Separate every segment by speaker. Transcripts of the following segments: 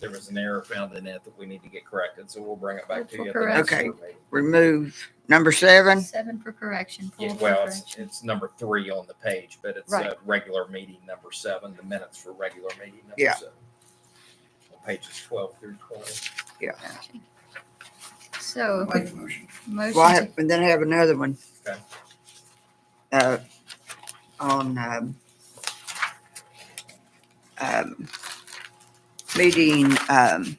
Speaker 1: there was an error found in it that we need to get corrected, so we'll bring it back to you. at the
Speaker 2: Correct.
Speaker 1: next
Speaker 3: Okay.
Speaker 1: board meeting.
Speaker 3: remove number seven.
Speaker 2: Seven for correction,
Speaker 1: Yeah,
Speaker 2: full for
Speaker 1: well, it's,
Speaker 2: correction.
Speaker 1: it's number three on the page, but it's uh
Speaker 2: Right.
Speaker 1: regular meeting number seven, the minutes for regular meeting number
Speaker 3: Yeah.
Speaker 1: seven. On Pages twelve through twenty.
Speaker 3: Yeah.
Speaker 2: Gotcha. So,
Speaker 4: Make a motion.
Speaker 3: Well, I
Speaker 2: motion
Speaker 3: have, and then I have another one.
Speaker 1: Okay.
Speaker 3: Uh, on, um, um, meeting, um,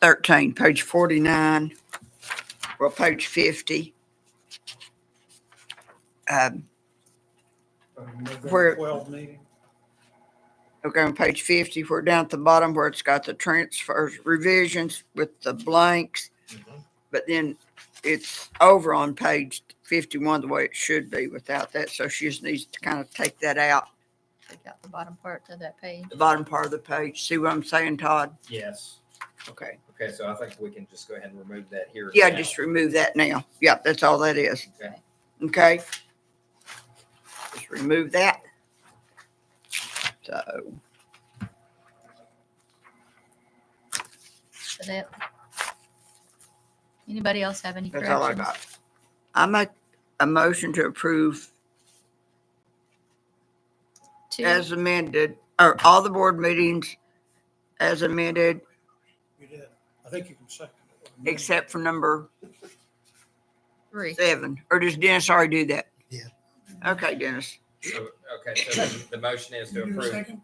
Speaker 3: thirteen, page forty-nine, well, page fifty. Um,
Speaker 5: November
Speaker 3: Where-
Speaker 5: twelve meeting.
Speaker 3: okay, on page fifty, we're down at the bottom where it's got the transfers revisions with the blanks. but then it's over on page fifty-one the way it should be without that. So she just needs to kind of take that out,
Speaker 2: to take out the bottom part of that page.
Speaker 3: the bottom part of the page. See what I'm saying, Todd?
Speaker 1: Yes,
Speaker 3: Okay.
Speaker 1: okay, so I think we can just go ahead and remove that here.
Speaker 3: Yeah,
Speaker 1: now.
Speaker 3: just remove that now. Yep, that's all that is.
Speaker 1: Okay.
Speaker 3: Okay. Just remove that. So,
Speaker 2: So that. Anybody else have any
Speaker 3: that's all I
Speaker 2: corrections?
Speaker 3: got. I make a motion to approve
Speaker 2: Two,
Speaker 3: as amended, or all the board meetings as amended,
Speaker 5: You did. I think you can second it.
Speaker 3: except for number
Speaker 2: three.
Speaker 3: Seven, or does Dennis already do that?
Speaker 4: Yeah.
Speaker 3: Okay, Dennis,
Speaker 1: So, okay, so the motion is to
Speaker 4: You do a
Speaker 1: approve,
Speaker 4: second?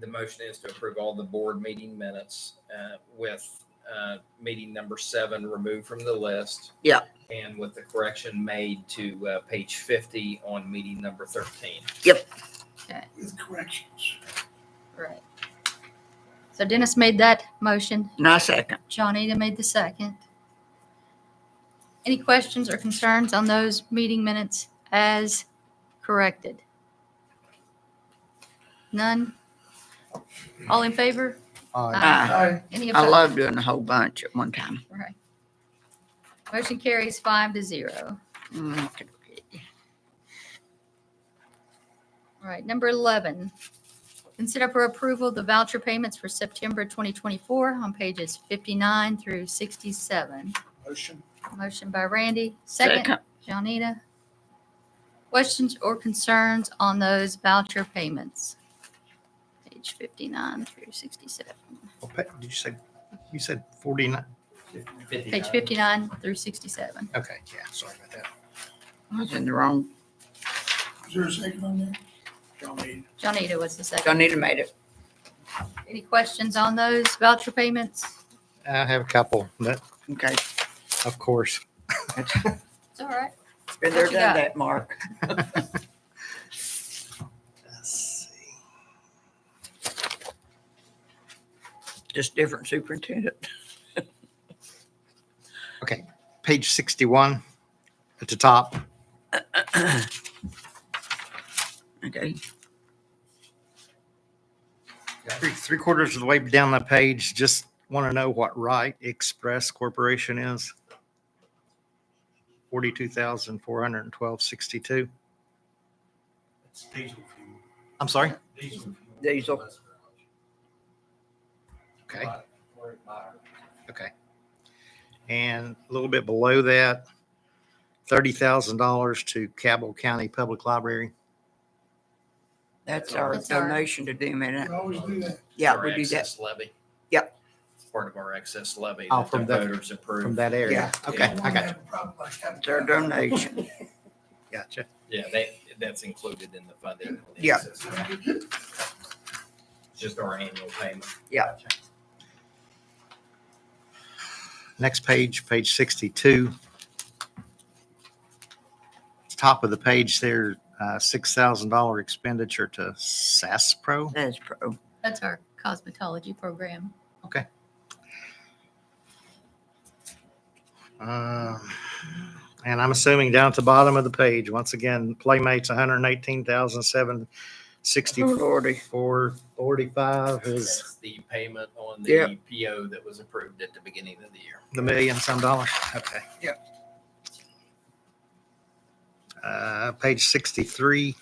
Speaker 1: the motion is to approve all the board meeting minutes uh, with uh, meeting number seven removed from the list.
Speaker 3: Yeah.
Speaker 1: And with the correction made to uh, page 50 on meeting number 13.
Speaker 4: With corrections.
Speaker 2: Right. So Dennis made that motion.
Speaker 3: and I second.
Speaker 2: John Eda made the second. Any questions or concerns on those meeting minutes as corrected? None? All in favor?
Speaker 3: Aye.
Speaker 4: Aye.
Speaker 2: Any
Speaker 3: I
Speaker 2: opposed?
Speaker 3: love doing a whole bunch at one time.
Speaker 2: Right. Motion carries five to zero.
Speaker 3: Mm, okay, okay.
Speaker 2: All right, number 11. Consider for approval the voucher payments for September 2024 on pages 59 through 67.
Speaker 5: Motion.
Speaker 2: Motion by Randy, second
Speaker 3: Second.
Speaker 2: Johnita. Questions or concerns on those voucher payments? Page 59 through 67.
Speaker 6: Well, pa- Did you say, you said 49?
Speaker 2: Page 59 through 67.
Speaker 6: Okay, yeah, sorry about that.
Speaker 3: I was in the wrong,
Speaker 4: Is there a second on that?
Speaker 5: John Eden.
Speaker 2: Johnita was the second.
Speaker 3: Donita made it.
Speaker 2: Any questions on those voucher payments?
Speaker 6: I have a couple, but
Speaker 3: Okay,
Speaker 6: of course.
Speaker 2: It's all right. What
Speaker 3: been there,
Speaker 2: you got?
Speaker 3: done that, Mark. Just different superintendent.
Speaker 6: Page 61 at the top,
Speaker 3: Okay,
Speaker 6: three three quarters of the way down the page, just want to know what Wright Express Corporation is. 42,412.62.
Speaker 4: It's diesel fuel.
Speaker 6: I'm sorry?
Speaker 4: Diesel fuel.
Speaker 3: Diesel.
Speaker 6: Okay,
Speaker 4: Where it matters.
Speaker 6: okay. And a little bit below that, $30,000 to Cabell County Public Library.
Speaker 3: that's our
Speaker 2: That's our-
Speaker 3: donation to them, isn't
Speaker 4: We
Speaker 3: it?
Speaker 4: always do that.
Speaker 3: Yeah,
Speaker 1: Our
Speaker 3: we do that.
Speaker 1: excess Levy.
Speaker 3: Yep.
Speaker 1: It's Part of our excess levy
Speaker 6: Oh,
Speaker 1: that the
Speaker 6: from that-
Speaker 1: voters approved.
Speaker 6: From that area. Okay, I got you.
Speaker 3: It's our donation.
Speaker 6: Gotcha.
Speaker 1: Yeah, they, that's included in the funding.
Speaker 3: Yeah.
Speaker 1: Just our annual payment.
Speaker 6: Next page, page 62. Top of the page there, uh, $6,000 expenditure to SASPRO.
Speaker 3: That's pro.
Speaker 2: That's our cosmetology program.
Speaker 6: Um, And I'm assuming down at the bottom of the page, once again, Playmates, $118,764.45
Speaker 3: Lordy.
Speaker 6: is
Speaker 1: That's the payment on
Speaker 3: Yeah.
Speaker 1: the PO that was approved at the beginning of the year.
Speaker 6: the million some dollars. Okay. Uh, Yep. Page 63,